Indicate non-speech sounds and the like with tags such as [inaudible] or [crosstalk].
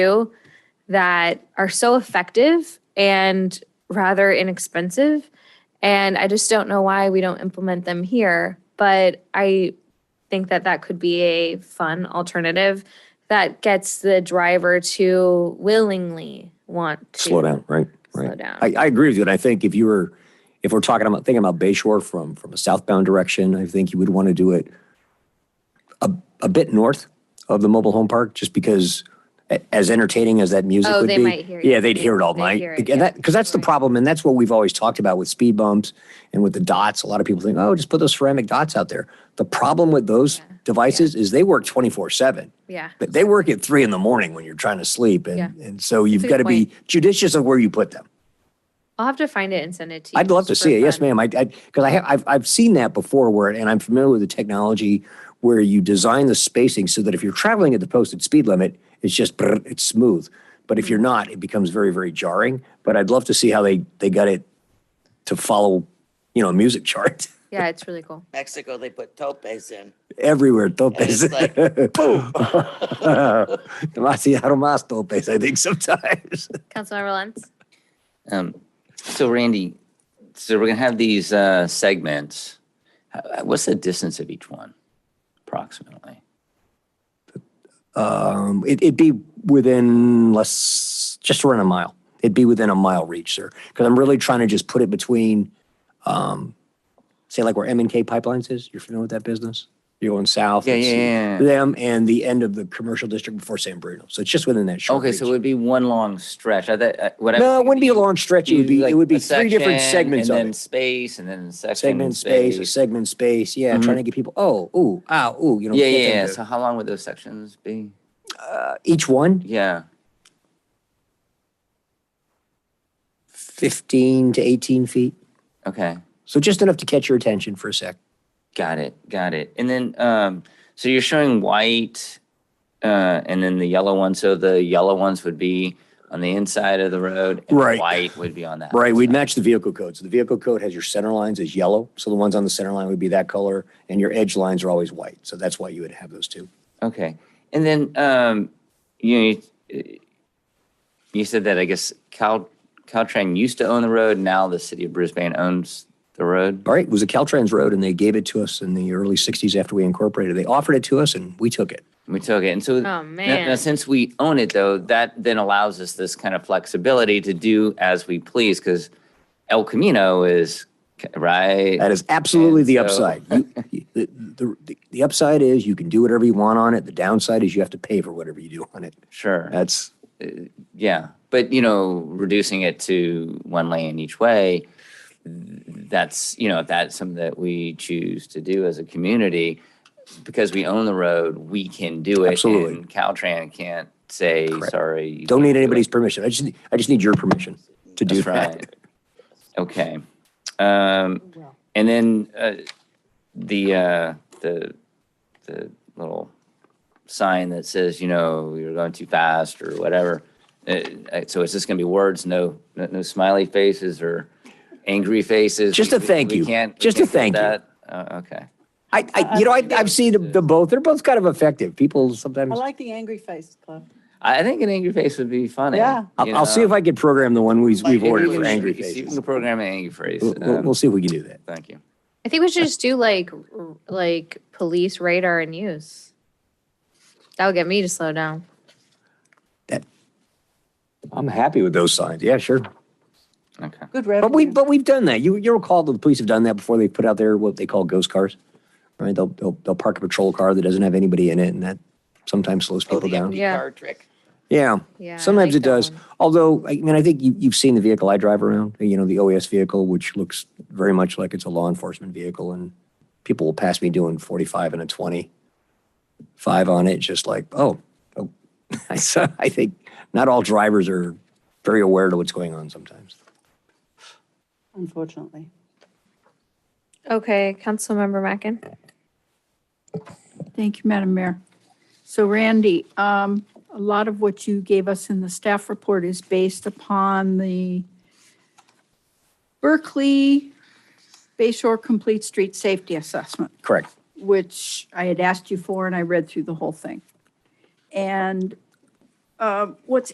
do that are so effective and rather inexpensive. And I just don't know why we don't implement them here. But I think that that could be a fun alternative that gets the driver to willingly want to slow down, right? slow Right. down. I, I agree with you. And I think if you were, if we're talking about, thinking about Bayshore from, from a southbound direction, I think you would want to do it a, a bit north of the mobile home park, just because a- as entertaining as that music Oh, would they be. might hear you. Yeah, they'd hear it all They'd night. hear it, And that, yeah. because that's the Right. problem. And that's what we've always talked about with speed bumps and with the dots. A lot of people think, oh, just put those ceramic dots out there. The problem with those Yeah. devices is they work 24 seven. yeah. But they work at three in the morning when you're trying to sleep. And, Yeah. and so you've good got to be judicious of where you put them. I'll have to find it and send it to you. I'd love to just see for it. Yes, fun. ma'am. I, I, because I have, I've, I've seen that before where, and I'm familiar with the technology where you design the spacing so that if you're traveling at the posted speed limit, it's just, brrr, it's smooth. But if you're not, it becomes very, very jarring. But I'd love to see how they, they got it to follow, you know, a music chart [laughs] Yeah, it's really cool. Mexico, they put topes in. everywhere. it's Topes. [laughs] like, boom. Demasiado más topes, I think sometimes. Councilmember Lenz? Um, so Randy, so we're gonna have these, uh, segments. Uh, What's the distance of each one approximately? Um, it, it'd be within less, just around a mile. It'd be within a mile reach, sir. Because I'm really trying to just put it between, um, say like where M and K Pipelines is. You're familiar with that business? You're going south. Yeah, it's yeah, yeah, yeah. Them and the end of the commercial district before San Bruno. So it's just within that short. Okay, so it reach. would be one long stretch. I thought, uh, what I. was no, it thinking wouldn't be a is long stretch. It would you be like it would be a three different section segments And of then it. space and then section. Segment space, a segment space. Yeah, Mhm. trying to get people. Oh, ooh, ow, ooh. You know. Yeah, get yeah, them yeah. to- uh, So how long would those sections be? each one, Yeah, 15 to 18 feet. okay. So just enough to catch your attention for a sec. Got it. Got it. And then, um, so you're showing white, uh, and then the yellow one. So the yellow ones would be on the inside of the road, and the Right. white would be on that. Right, we'd match the vehicle code. So the vehicle code has your center lines as yellow. So the ones on the center line would be that color and your edge lines are always white. So that's why you would have those two. Okay. And then, um, you know, you, you said that I guess Cal Caltrain used to own the road. Now the city of Brisbane owns the road. All right, it was a Caltrans road and they gave it to us in the early 60s after we incorporated. They offered it to us and we took it. We took it, and so Oh, Now, now, man. since we own it, though, that then allows us this kind of flexibility to do as we please, because El Camino is right. That is absolutely the And so- upside. You- you- the, the, the, the upside is you can do whatever you want on it. The downside is you have to pay for whatever you do on it. Sure. That's yeah, but you know, reducing it to one lane each way. That's you know, if that's something that we choose to do as a community, because we own the road, we can do it. Absolutely. And Caltrans can't say sorry. you don't can't need do it." anybody's permission. I just need- I just need your permission to do That's that. right. Okay. Um, and then, uh, the, uh, the, the little sign that says, you know, you're going too fast or whatever. Uh, uh, so it's just gonna be words, no, no no smiley faces or angry faces. Just We- a we- thank we you. can't- we Just a can't do thank you. that. Uh, okay. I, Uh, I you know, I, I've seen the, the both. They're both kind of effective. People sometimes. I like the angry face club. I, I think an angry face would be funny. Yeah. I'll, I'll see if I can program the one we've, we've ordered for angry You faces. can program an angry face. We'll, we'll- um, we'll see if we can do that. Thank you. I think we should just do like, r- like police radar and use. That would get me to slow down. I'm happy with those signs. Yeah, sure. Okay. Good But we revenue. but we've done that. You you recall that the police have done that before. They put out their what they call ghost cars, right? They'll they'll, they'll park a patrol car that doesn't have anybody in it, and that sometimes slows oh, people the down. empty Yeah. car trick. Yeah. Yeah. I Sometimes like it that does. one. Although, I mean, I think you, you've seen the vehicle I drive around, you know, the OAS vehicle, which looks very much like it's a law enforcement vehicle. And people will pass me doing 45 and a 25 on it, just like, oh, oh. [laughs] So I think not all drivers are very aware to what's going on sometimes. Unfortunately. Okay, Councilmember Mackin. Thank you, Madam Mayor. So Randy, um, a lot of what you gave us in the staff report is based upon the Berkeley Bayshore Complete Street Safety Assessment, Correct. which I had asked you for and I read through the whole thing. And um, what's